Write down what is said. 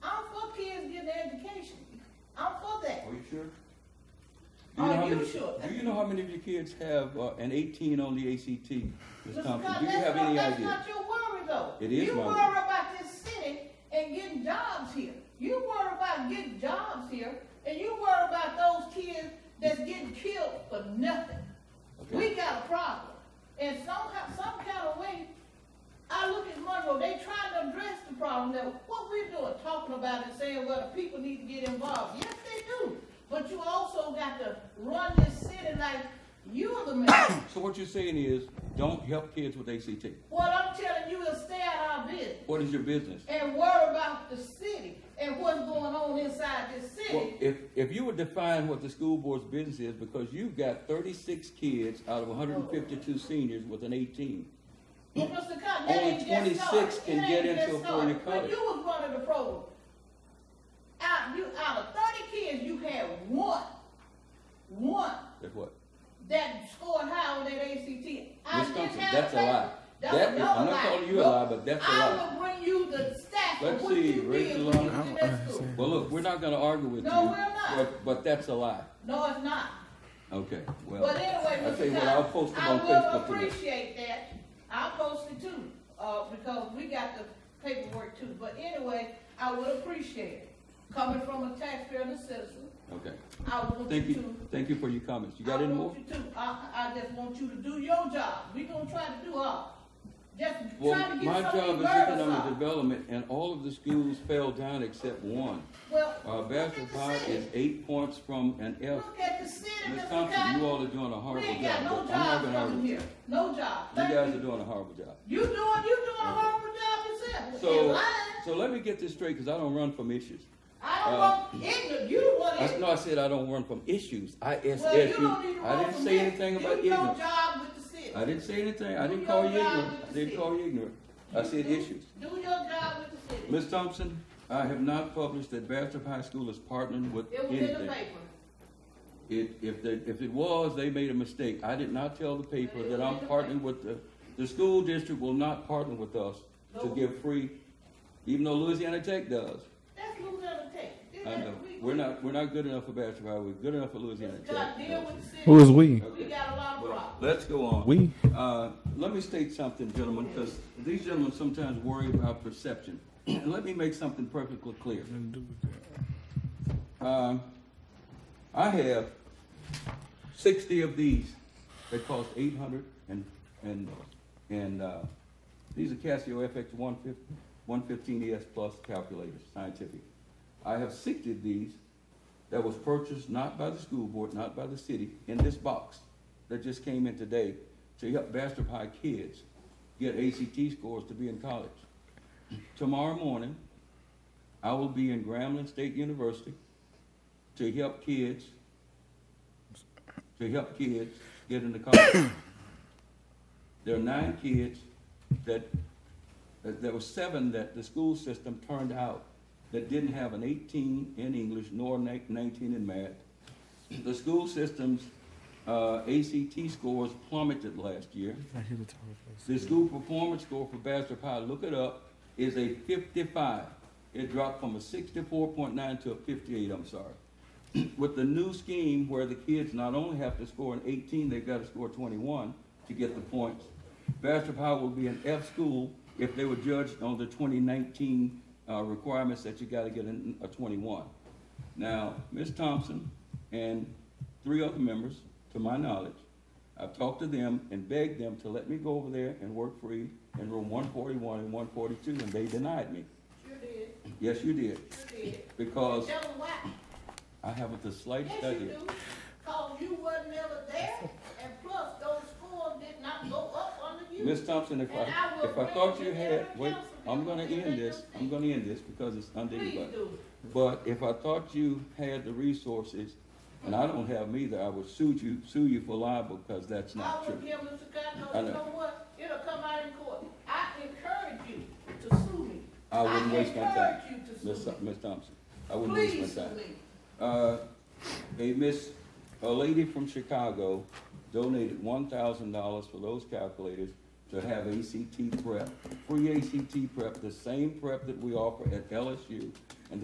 many? sure? Do you know how many of your kids have uh, an 18 on the ACT, Ms. Mr. Thompson? Scott, Do you that's have not- any that's idea? not your worry, though. It is You my worry worry. about this city and getting jobs here. You worry about getting jobs here, and you worry about those kids that's getting killed for nothing. Okay. We got a problem, and somehow, some kind of way, I look at Monroe, they trying to address the problem, that what we're doing, talking about it, saying, well, the people need to get involved, yes, they do. But you also got to run this city like you're the mayor. So what you're saying is, don't help kids with ACT. What I'm telling you is stay out of our business What is your business? and worry about the city and what's going on inside this Well, city. if, if you would define what the school board's business is, because you've got thirty-six kids out of hundred and fifty-two seniors with an eighteen. But Mr. Cotton, that Only ain't just 26 started. can It get ain't into just a foreign started. When college. you was running the program, out, you, out of thirty kids, you had one, one That's what? that scored high on that ACT. I Ms. didn't Thompson, have that's a paper. lie. That's That is- another I'm not lie. calling you a Look, lie, but that's a lie. I will bring you the stats of Let's what see, you did when Rachel, you was I'm- in that school. Well, look, we're not gonna argue with you. No, we're not. But, but that's a lie. No, it's not. Okay, well, But I anyway, tell you Mr. what, I'll Todd, post them I on will Facebook today. appreciate that. I'll post it too, uh, because we got the paperwork too. But anyway, I would appreciate it. Coming from a taxpayer and a citizen, Okay, I want thank you you, to. thank you for your comments. You got any I more? want you to, I, I just want you to do your job. We gonna try to do ours. Just Well, trying to my get some job of is these murders economic off. development, and all of the schools fell down except one. Well, Uh, look at the Bastrop is city. eight points from an F. Look at the city, Ms. Mr. Thompson, you Cotton. all are doing a We horrible ain't job. got no but I'm not jobs gonna coming argue. You here, no job. Thank guys you. are doing a horrible job. You doing, you doing a horrible job yourself. You're So, lying. so let me get this straight, because I don't run from issues. I don't uh, want ignorant. You don't want I, ignorant. no, I said I don't run from issues, I S Well, you S U. don't need to I run didn't from say this. anything about You do your ignorant. job with the city. I didn't say anything, I Do didn't call you your job ignorant, with I the didn't city. call you ignorant, I said Do- issues. Do your job with the city. Ms. Thompson, I have not published that Bastrop High School is partnering with It was in the anything. paper. It, if they, if it was, they made a mistake. I did not tell the paper that I'm partnering with the, the school district will not partner with us to give free, even though Louisiana Tech does. That's Louisiana Tech. This I is- know, we- we're not, we're not good enough for Bastrop High, we're good enough for Louisiana Just gotta deal Tech. with the city. Who is we? We got a lot of Well, problems. Let's go on. We? Uh, let me state something, gentlemen, because these gentlemen sometimes worry about perception. And let me make something perfectly clear. Um, I have sixty of these that cost eight hundred and, and, and, uh, these are Casio FX one fifty, one fifteen ES plus calculators, scientific. I have sixty of these that was purchased not by the school board, not by the city, in this box that just came in today to help Bastrop High kids get ACT scores to be in college. Tomorrow morning, I will be in Grambling State University to help kids, to help kids get into college. There are nine kids that, that, there were seven that the school system turned out that didn't have an eighteen in English nor ni- nineteen in math. The school system's, uh, ACT scores plummeted last year. The school performance score for Bastrop High, look it up, is a fifty-five. It dropped from a sixty-four point nine to a fifty-eight, I'm sorry. With the new scheme where the kids not only have to score an eighteen, they've got to score twenty-one to get the points. Bastrop High will be an F school if they were judged on the twenty nineteen, uh, requirements that you gotta get an- a twenty-one. Now, Ms. Thompson and three other members, to my knowledge, I've talked to them and begged them to let me go over there and work free in room one forty-one and one forty-two, and they denied me. Sure did, Yes, you did, sure did. because Tell them why. I haven't the slightest Yes, you idea. do. Cause you wasn't ever there, and plus those scores did not go up under you. Ms. Thompson, if I, And I will if I thought you bring you had, every wait, council I'm member gonna here that end this, you'll I'm gonna end this because it's Please undignified. do. But if I thought you had the resources, and I don't have them either, I would sue you, sue you for libel, because that's I not would true. give Mr. I Cotton, know. you know what, it'll come out in court. I encourage you to sue me. I wouldn't waste my time. encourage you to Ms. sue me. Ms. uh, Thompson, I wouldn't Please waste sue my time. me. Uh, a miss, a lady from Chicago donated one thousand dollars for those calculators to have ACT prep, free ACT prep, the same prep that we offer at LSU, and